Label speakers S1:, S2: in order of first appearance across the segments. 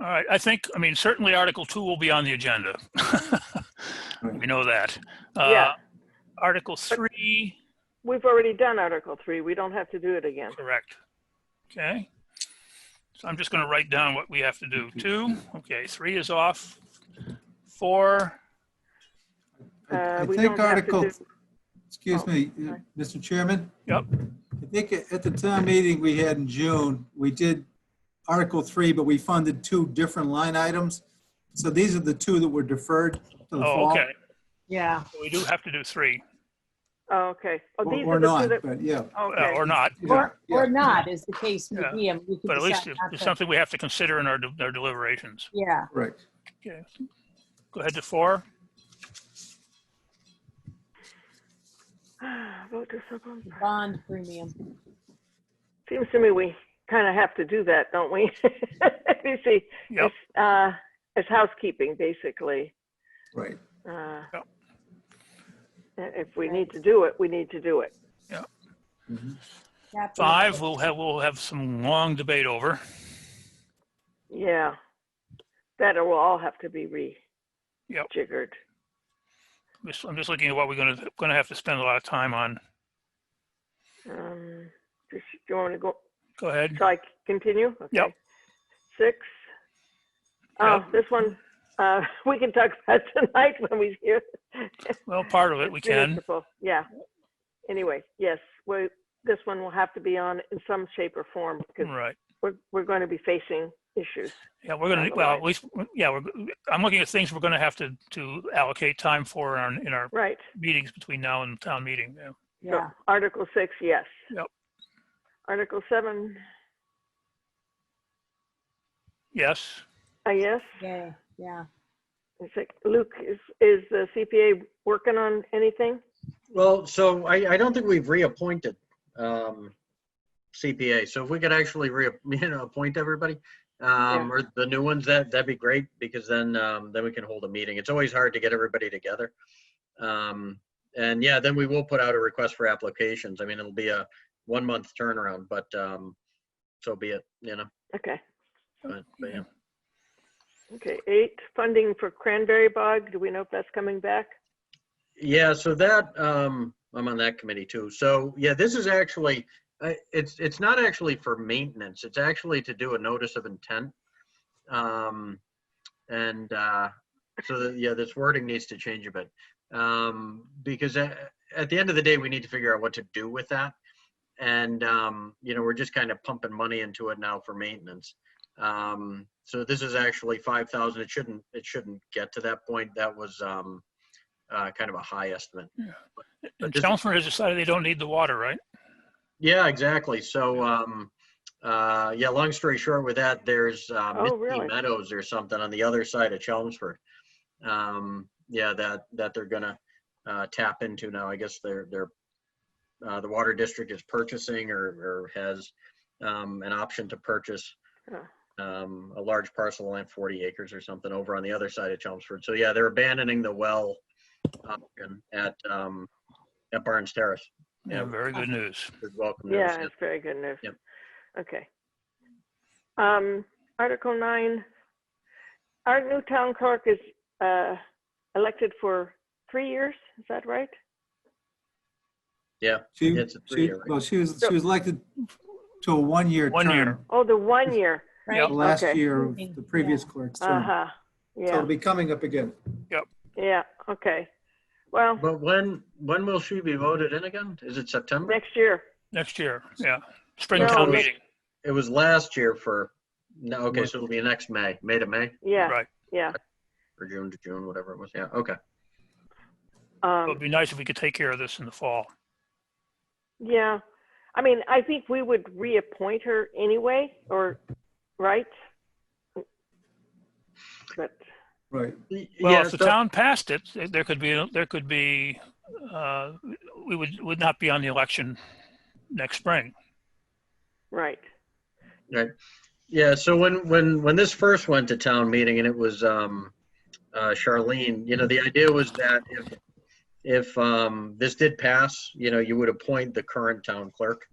S1: All right, I think, I mean, certainly Article 2 will be on the agenda. We know that. Uh,
S2: Yeah.
S1: Article 3,
S2: We've already done Article 3. We don't have to do it again.
S1: correct. Okay. So I'm just going to write down what we have to do. 2, okay, 3 is off. 4,
S2: Uh,
S3: I
S2: we
S3: think
S2: don't have to
S3: Article,
S2: do-
S3: excuse
S2: oh,
S3: me, uh,
S2: sorry.
S3: Mr. Chairman,
S1: yep,
S3: I think a- at the town meeting we had in June, we did Article 3, but we funded two different line items. So these are the two that were deferred to the
S1: oh,
S3: fall.
S1: okay.
S4: Yeah,
S1: We do have to do 3,
S2: Oh, okay. Oh,
S3: Or
S2: these
S3: or
S2: are the two
S3: not,
S2: that,
S3: but yeah.
S1: uh,
S2: okay.
S1: or not,
S3: yeah,
S4: or,
S3: yeah.
S4: or not, is the case
S1: Yeah.
S4: with me. I mean, we could
S1: but at least
S4: decide not
S1: it's
S4: to-
S1: something we have to consider in our de- our deliberations.
S4: Yeah,
S3: Correct.
S1: Okay, go ahead to 4.
S2: Vote to supplement.
S4: the bond premium.
S2: Seems to me we kind of have to do that, don't we? You see,
S1: Yep,
S2: it's, uh, it's housekeeping, basically.
S3: Right.
S2: Uh,
S1: Yep.
S2: If we need to do it, we need to do it.
S5: Mm-hmm.
S4: Chapter-
S1: 5, we'll have, we'll have some long debate over.
S2: Yeah. That will all have to be
S1: Yep.
S2: rejiggered.
S1: Just- I'm just looking at what we're gonna, gonna have to spend a lot of time on.
S2: Um, just- Do you want to go,
S1: Go ahead.
S2: Shall I c- continue?
S1: Yep.
S2: Okay. Six. Oh, this one, uh, we can talk about tonight when we hear.
S1: Well, part of it we
S2: It's
S1: can.
S2: municipal, Yeah. Anyway, yes, we, this one will have to be on in some shape or form because
S1: Right.
S2: we're, we're going to be facing issues.
S1: Yeah, we're gonna,
S2: Down the
S1: well,
S2: line.
S1: at least, yeah, we're, I'm looking at things we're gonna have to, to allocate time for in our, in our
S2: Right.
S1: meetings between now and town meeting. yeah.
S2: So,
S4: Yeah,
S2: Article six, yes.
S1: Yep.
S2: Article seven,
S1: Yes,
S2: a yes.
S4: yeah, yeah.
S2: Is it- Luke, is, is the CPA working on anything?
S5: Well, so I, I don't think we've reappointed um, CPA. So if we could actually re, you know, appoint everybody, um, or the new ones, that, that'd be great because then, um, then we can hold a meeting. It's always hard to get everybody together. Um, And yeah, then we will put out a request for applications. I mean, it'll be a one-month turnaround, but um, so be it, you know.
S2: Okay.
S5: But but, yeah.
S2: Okay, eight, funding for Cranberry Bog. Do we know if that's coming back?
S5: Yeah, so that, um, I'm on that committee too. So, yeah, this is actually, uh, it's, it's not actually for maintenance. It's actually to do a notice of intent. Um, and, uh, so that, yeah, this wording needs to change a bit. Um, because at, at the end of the day, we need to figure out what to do with that. And, um, you know, we're just kind of pumping money into it now for maintenance. Um, so this is actually five thousand. It shouldn't, it shouldn't get to that point. That was, um, uh, kind of a high estimate.
S2: Hmm.
S1: and
S5: just-
S1: Chelmsford has decided they don't need the water, right?
S5: Yeah, exactly. So, um, uh, yeah, long story short with that, there's, uh,
S2: Oh,
S5: Misty
S2: really?
S5: Meadows or something on the other side of Chelmsford. Um, yeah, that, that they're gonna, uh, tap into now. I guess they're, they're, uh, the water district is purchasing or, or has, um, an option to purchase,
S2: Oh.
S5: um, a large parcel of land, 40 acres or something over on the other side of Chelmsford. So, yeah, they're abandoning the well option at, um, at Barnes Terrace.
S1: Yeah,
S5: Yeah.
S1: very good news.
S5: It's Welcome. to us.
S2: Yeah, it's very good news.
S5: Yep.
S2: Okay. Um, Article nine, our new town clerk is, uh, elected for three years, is that right?
S5: Yeah.
S3: She,
S5: It's a
S3: she,
S5: three-year, right?
S3: well, she was, she was elected to a one-year
S1: One year.
S3: term.
S2: Oh, the one year,
S4: Right.
S3: The last
S2: Okay.
S3: year of the previous clerk's term.
S2: uh-huh,
S3: So it'll
S2: yeah,
S3: be coming up again.
S2: yeah, okay. Well,
S5: But when, when will she be voted in again? Is it September?
S2: next year,
S1: Next year, yeah. Spring
S2: No,
S1: town
S5: but-
S1: meeting,
S5: It was last year for, no, okay, so it'll be next May, May to May,
S2: yeah,
S1: right.
S2: yeah.
S5: or June to June, whatever it was. Yeah, okay.
S1: It
S2: Um,
S1: would be nice if we could take care of this in the fall.
S2: yeah, I mean, I think we would reappoint her anyway, or, right? But,
S3: Right.
S1: Well,
S5: Yeah,
S1: if the
S5: so-
S1: town passed it, there could be, there could be, uh, we would, would not be on the election next spring.
S2: right,
S5: Yeah, so when, when, when this first went to town meeting and it was, um, uh, Charlene, you know, the idea was that if, if, um, this did pass, you know, you would appoint the current town clerk.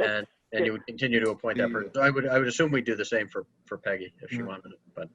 S5: And, And you would continue to appoint that person. So I would, I would assume we do the same for, for Peggy if she
S3: Yeah.
S5: wanted it, but.